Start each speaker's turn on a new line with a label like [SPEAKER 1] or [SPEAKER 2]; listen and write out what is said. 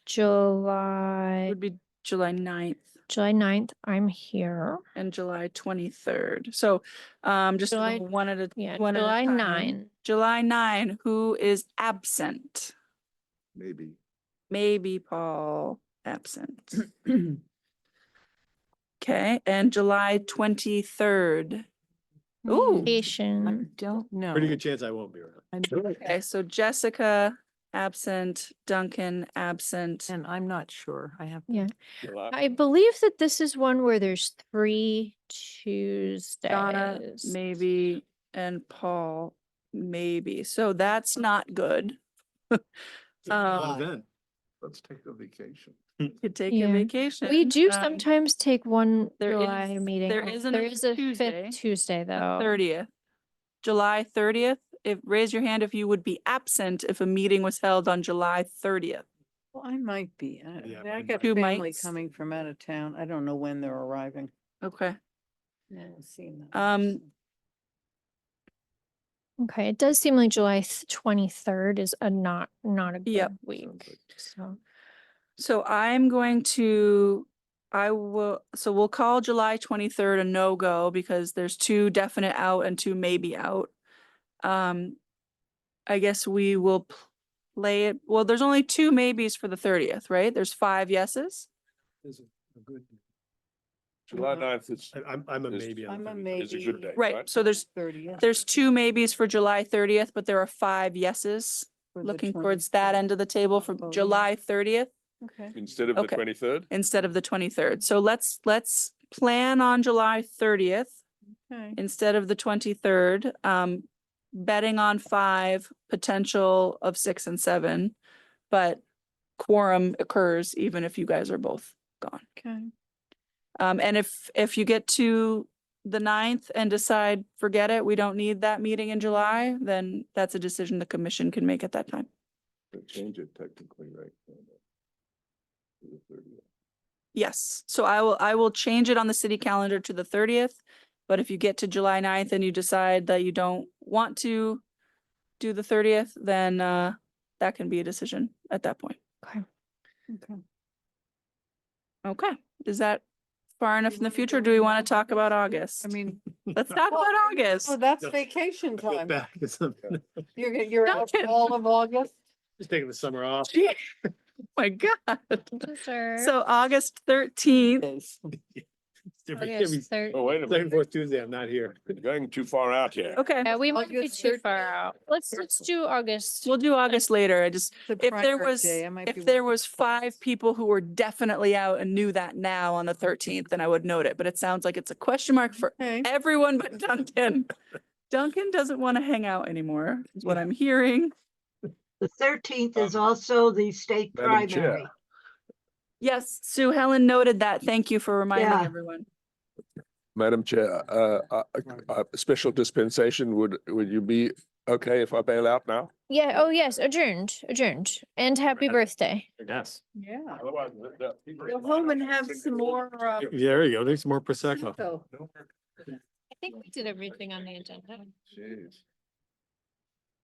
[SPEAKER 1] July,
[SPEAKER 2] would be July 9th
[SPEAKER 1] July 9th, I'm here.
[SPEAKER 2] and July twenty-third. So um just
[SPEAKER 1] July-
[SPEAKER 2] one at a,
[SPEAKER 1] Yeah,
[SPEAKER 2] one at a
[SPEAKER 1] July
[SPEAKER 2] time.
[SPEAKER 1] 9.
[SPEAKER 2] July nine, who is absent?
[SPEAKER 3] maybe.
[SPEAKER 2] Maybe Paul absent. Okay, and July twenty-third. Ooh.
[SPEAKER 4] I
[SPEAKER 1] Vacation.
[SPEAKER 4] don't know.
[SPEAKER 3] Pretty good chance I won't be
[SPEAKER 4] I'm-
[SPEAKER 3] around.
[SPEAKER 2] Okay, so Jessica absent, Duncan absent.
[SPEAKER 4] And I'm not sure. I have.
[SPEAKER 1] Yeah.
[SPEAKER 3] July.
[SPEAKER 1] I believe that this is one where there's three
[SPEAKER 2] Donna,
[SPEAKER 1] Tuesdays.
[SPEAKER 2] maybe, and Paul, maybe. So that's not good.
[SPEAKER 3] Well,
[SPEAKER 2] Um,
[SPEAKER 3] Then, let's take a vacation.
[SPEAKER 2] Could take
[SPEAKER 1] Yeah.
[SPEAKER 2] a
[SPEAKER 1] We
[SPEAKER 2] vacation.
[SPEAKER 1] We do
[SPEAKER 2] um,
[SPEAKER 1] sometimes take one
[SPEAKER 2] there
[SPEAKER 1] July
[SPEAKER 2] is-
[SPEAKER 1] meeting.
[SPEAKER 2] there
[SPEAKER 1] off.
[SPEAKER 2] is an
[SPEAKER 1] There
[SPEAKER 2] extra
[SPEAKER 1] is a
[SPEAKER 2] Tuesday,
[SPEAKER 1] fifth Tuesday, though.
[SPEAKER 2] Thirtieth, July thirtieth. If, raise your hand if you would be absent if a meeting was held on July thirtieth.
[SPEAKER 4] Well, I might be. I-
[SPEAKER 3] Yeah, mine
[SPEAKER 4] I got
[SPEAKER 2] might be. Two
[SPEAKER 4] family
[SPEAKER 2] mics.
[SPEAKER 4] coming from out of town. I don't know when they're arriving.
[SPEAKER 2] Okay,
[SPEAKER 4] I haven't seen them.
[SPEAKER 2] Um,
[SPEAKER 1] Okay, it does seem like July twenty-third is a not, not a
[SPEAKER 2] Yep.
[SPEAKER 1] good week. So,
[SPEAKER 2] so I'm going to, I will, so we'll call July twenty-third a no-go because there's two definite out and two maybe out. Um, I guess we will pl- play it, well, there's only two maybes for the thirtieth, right? There's five yeses?
[SPEAKER 5] July
[SPEAKER 2] Mm-hmm.
[SPEAKER 5] ninth is,
[SPEAKER 3] I- I'm, I'm a
[SPEAKER 5] There's-
[SPEAKER 3] maybe. on
[SPEAKER 4] I'm a
[SPEAKER 3] Thursday.
[SPEAKER 5] is a
[SPEAKER 4] maybe.
[SPEAKER 5] good day.
[SPEAKER 2] Right, so there's,
[SPEAKER 4] Thirtieth.
[SPEAKER 2] there's two maybes for July thirtieth, but there are five yeses.
[SPEAKER 4] for the
[SPEAKER 2] Looking towards that
[SPEAKER 4] 23rd.
[SPEAKER 2] end of the table for
[SPEAKER 4] voting.
[SPEAKER 2] July thirtieth
[SPEAKER 4] Okay.
[SPEAKER 5] Instead of the
[SPEAKER 2] Okay.
[SPEAKER 5] twenty-third?
[SPEAKER 2] instead of the twenty-third. So let's, let's plan on July thirtieth
[SPEAKER 4] Okay.
[SPEAKER 2] instead of the twenty-third. Um, betting on five, potential of six and seven. But quorum occurs even if you guys are both gone.
[SPEAKER 4] Okay.
[SPEAKER 2] Um, and if, if you get to the ninth and decide, forget it, we don't need that meeting in July, then that's a decision the commission can make at that time.
[SPEAKER 5] Change it technically, right?
[SPEAKER 2] Yes, so I will, I will change it on the city calendar to the thirtieth, but if you get to July 9th and you decide that you don't want to do the thirtieth, then uh, that can be a decision at that point.
[SPEAKER 4] Okay.
[SPEAKER 2] Okay, is that far enough in the future? or Do we want to talk about August?
[SPEAKER 4] I mean,
[SPEAKER 2] Let's talk
[SPEAKER 4] Well,
[SPEAKER 2] about August.
[SPEAKER 4] oh, that's
[SPEAKER 3] Just-
[SPEAKER 4] vacation
[SPEAKER 3] I feel
[SPEAKER 4] time.
[SPEAKER 3] Back to something.
[SPEAKER 4] You're, gonna- you're out
[SPEAKER 2] Duncan.
[SPEAKER 4] all of August.
[SPEAKER 3] Just taking the summer off.
[SPEAKER 2] Gee, My God.
[SPEAKER 1] so
[SPEAKER 2] So August thirteenth,
[SPEAKER 4] is.
[SPEAKER 3] Every- every
[SPEAKER 1] August third,
[SPEAKER 5] Oh, wait a
[SPEAKER 3] Second,
[SPEAKER 5] minute,
[SPEAKER 3] fourth Tuesday, I'm not here.
[SPEAKER 5] you're going too far out here.
[SPEAKER 2] okay,
[SPEAKER 1] yeah, we might be
[SPEAKER 4] August
[SPEAKER 1] too
[SPEAKER 4] 13th.
[SPEAKER 1] far out. Let's, let's do August.
[SPEAKER 2] we'll do August later. I just,
[SPEAKER 4] The
[SPEAKER 2] if there
[SPEAKER 4] primary
[SPEAKER 2] was,
[SPEAKER 4] day, I might be
[SPEAKER 2] if there
[SPEAKER 4] working.
[SPEAKER 2] was five people who were definitely out and knew that now on the thirteenth, then I would note it, but it sounds like it's a question mark for
[SPEAKER 4] Okay.
[SPEAKER 2] everyone but Duncan. Duncan doesn't want to hang out anymore, is what I'm hearing.
[SPEAKER 6] The thirteenth is
[SPEAKER 5] Um,
[SPEAKER 6] also the state
[SPEAKER 5] Madam Chair.
[SPEAKER 6] primary.
[SPEAKER 2] Yes, Sue Helen noted that. Thank you for reminding
[SPEAKER 6] Yeah.
[SPEAKER 2] everyone.
[SPEAKER 5] Madam Chair, uh, uh, uh, a special dispensation, would, would you be okay if I bail out now?
[SPEAKER 1] Yeah, oh yes, adjourned, adjourned. And happy birthday.
[SPEAKER 3] Yes.
[SPEAKER 4] Yeah.
[SPEAKER 5] Otherwise, the- the people-
[SPEAKER 4] Go home and have some more, uh,
[SPEAKER 3] There you go. There's more Prosecco.
[SPEAKER 4] So,
[SPEAKER 1] I think we did everything on the agenda.
[SPEAKER 5] Jeez.